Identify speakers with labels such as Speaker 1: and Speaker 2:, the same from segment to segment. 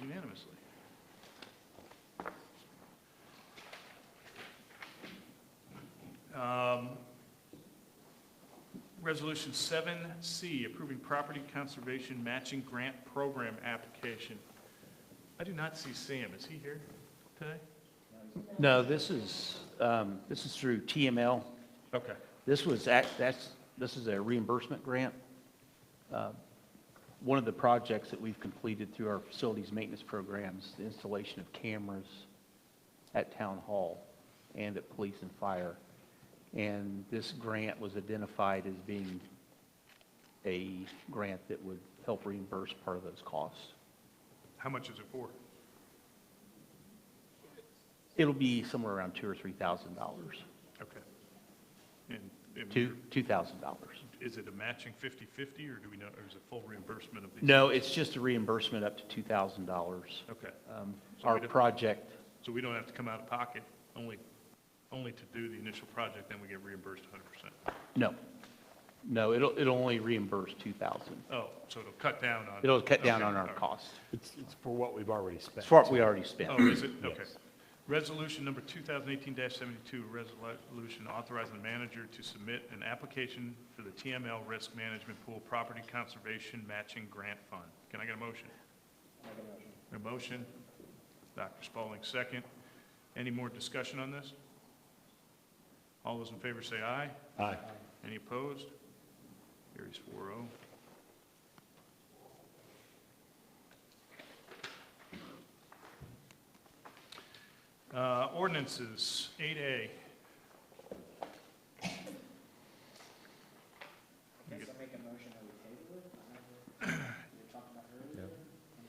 Speaker 1: unanimously. Um, Resolution 7C, approving property conservation matching grant program application. I do not see Sam. Is he here today?
Speaker 2: No, this is, um, this is through TML.
Speaker 1: Okay.
Speaker 2: This was, act- that's, this is a reimbursement grant. Uh, One of the projects that we've completed through our facilities maintenance programs, the installation of cameras at Town Hall and at police and fire. And this grant was identified as being a grant that would help reimburse part of those costs.
Speaker 1: How much is it for?
Speaker 2: It'll be somewhere around two or three thousand dollars,
Speaker 1: Okay. And- and
Speaker 2: two, two thousand dollars.
Speaker 1: Is it a matching 50/50, or do we know, or is it full reimbursement of these?
Speaker 2: No, it's just a reimbursement up to $2,000.
Speaker 1: Okay.
Speaker 2: Um,
Speaker 1: So we
Speaker 2: Our
Speaker 1: don't-
Speaker 2: project,
Speaker 1: So we don't have to come out of pocket, only, only to do the initial project, then we get reimbursed 100%?
Speaker 2: no. No, it'll, it'll only reimburse 2,000.
Speaker 1: Oh, so it'll cut down on?
Speaker 2: It'll cut down
Speaker 1: Okay,
Speaker 2: on
Speaker 1: all
Speaker 2: our
Speaker 1: right.
Speaker 2: cost.
Speaker 3: It's, it's for what we've already spent.
Speaker 2: It's for what we already spent.
Speaker 1: Oh, is it? Okay.
Speaker 3: Yes.
Speaker 1: Resolution number 2018-72, a resolution authorizing the manager to submit an application for the TML Risk Management Pool Property Conservation Matching Grant Fund. Can I get a motion? A motion. Dr. Spaulding, second. Any more discussion on this? All those in favor say aye.
Speaker 3: Aye.
Speaker 1: Any opposed? Carries oh. 4-0. Uh, Ordinances, 8A.
Speaker 4: I guess I'll make a motion that we table it, whatever we were talking about earlier.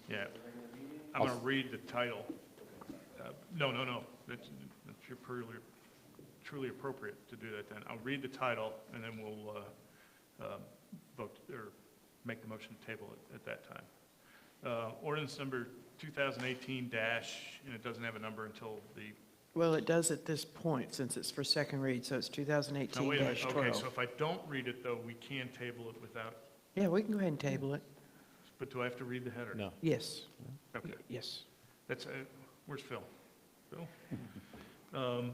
Speaker 1: Yeah,
Speaker 4: Regular meeting,
Speaker 1: I'm going to read the title. Uh, No, no, no, that's that's your truly, truly appropriate to do that then. I'll read the title, and then we'll uh, uh, vote, or make the motion to table it at that time. Uh, Ordinance number 2018 dash, and it doesn't have a number until the,
Speaker 5: Well, it does at this point, since it's for second read, so it's
Speaker 1: no, wait a minute, okay,
Speaker 5: 2018-12.
Speaker 1: so if I don't read it, though, we can table it without,
Speaker 5: Yeah, we can go ahead and table it.
Speaker 1: but do I have to read the header?
Speaker 3: No.
Speaker 5: Yes,
Speaker 1: Okay.
Speaker 5: yes.
Speaker 1: That's, uh, where's Phil? Phil? Um,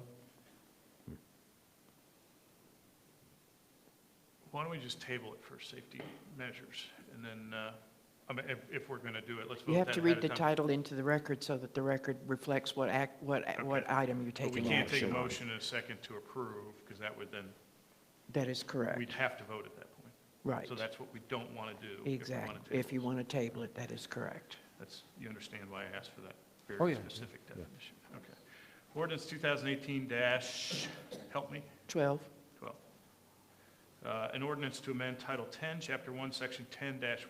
Speaker 1: Why don't we just table it for safety measures, and then, uh, I mean, if, if we're gonna do it, let's vote
Speaker 5: You
Speaker 1: that
Speaker 5: have to read
Speaker 1: ahead
Speaker 5: the
Speaker 1: of time.
Speaker 5: title into the record so that the record reflects what act, what, what item you're
Speaker 1: But we
Speaker 5: taking
Speaker 1: can't take a
Speaker 5: action on.
Speaker 1: motion in a second to approve, because that would then,
Speaker 5: That is correct,
Speaker 1: we'd have to vote at that point.
Speaker 5: right.
Speaker 1: So that's what we don't wanna do. if we wanna
Speaker 5: Exactly.
Speaker 1: table
Speaker 5: If you
Speaker 1: it.
Speaker 5: want to table it, that is correct.
Speaker 1: That's, you understand why I asked for that
Speaker 2: Oh,
Speaker 1: very
Speaker 2: yeah.
Speaker 1: specific definition, okay. Ordinance 2018 dash, help me?
Speaker 5: 12,
Speaker 1: 12. Uh, An ordinance to amend Title 10, Chapter 1, Section 10-103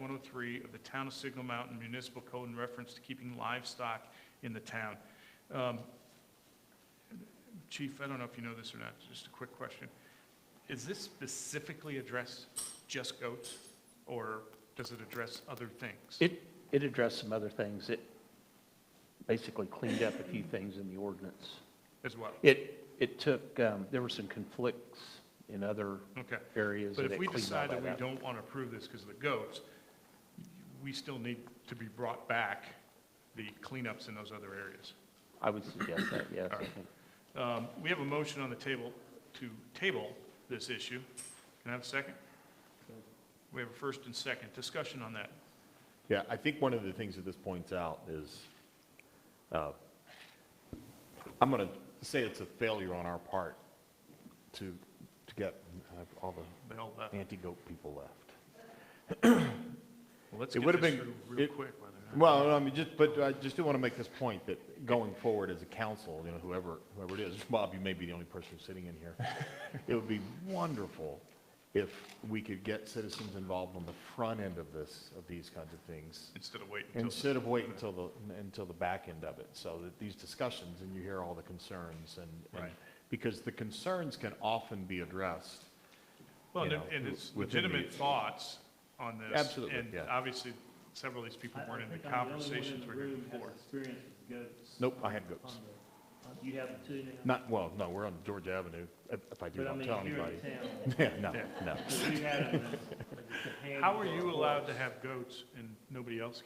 Speaker 1: of the Town of Signal Mountain Municipal Code in reference to keeping livestock in the town. Um, Chief, I don't know if you know this or not, just a quick question. Is this specifically address just goats, or does it address other things?
Speaker 2: It, it addressed some other things. It basically cleaned up a few things in the ordinance.
Speaker 1: As well?
Speaker 2: It, it took, um, there were some conflicts in other
Speaker 1: Okay.
Speaker 2: areas
Speaker 1: But if
Speaker 2: that it
Speaker 1: we
Speaker 2: cleaned all
Speaker 1: decide that we
Speaker 2: that up.
Speaker 1: don't want to approve this because of the goats, we still need to be brought back the cleanups in those other areas.
Speaker 2: I would suggest that, yes. I think.
Speaker 1: Um, We have a motion on the table to table this issue. Can I have a second? We have a first and second discussion on that.
Speaker 3: Yeah, I think one of the things that this points out is, uh, I'm going to say it's a failure on our part to, to get all the
Speaker 1: Bill, uh,
Speaker 3: anti-goat people left.
Speaker 1: Let's
Speaker 3: It
Speaker 1: get
Speaker 3: would've
Speaker 1: this
Speaker 3: been-
Speaker 1: through real
Speaker 3: it-
Speaker 1: quick. whether or not-
Speaker 3: Well, I mean, just, but I just do want to make this point that going forward as a council, you know, whoever, whoever it is, Bob, you may be the only person sitting in here. It would be wonderful if we could get citizens involved on the front end of this, of these kinds of things,
Speaker 1: Instead of waiting until.
Speaker 3: instead of waiting until the, until the back end of it, so that these discussions, and you hear all the concerns and. and-
Speaker 1: Right.
Speaker 3: Because the concerns can often be addressed.
Speaker 1: Well,
Speaker 3: you
Speaker 1: and
Speaker 3: know,
Speaker 1: and it's
Speaker 3: within the-
Speaker 1: legitimate thoughts on this.
Speaker 3: Absolutely,
Speaker 1: And
Speaker 3: yeah.
Speaker 1: obviously, several of these people weren't in the conversations we're here before.
Speaker 6: Experience with goats.
Speaker 3: Nope, I had goats.
Speaker 6: on the- You have them too now?
Speaker 3: Not, well, no, we're on George Avenue, if if I do,
Speaker 6: But I
Speaker 3: don't
Speaker 6: mean,
Speaker 3: tell
Speaker 6: if you're
Speaker 3: anybody.
Speaker 6: in town,
Speaker 3: Yeah, no,
Speaker 1: Yeah.
Speaker 3: no.
Speaker 6: if you had them as a companion
Speaker 1: How
Speaker 6: for
Speaker 1: are
Speaker 6: a
Speaker 1: you allowed to
Speaker 6: horse,
Speaker 1: have goats and nobody else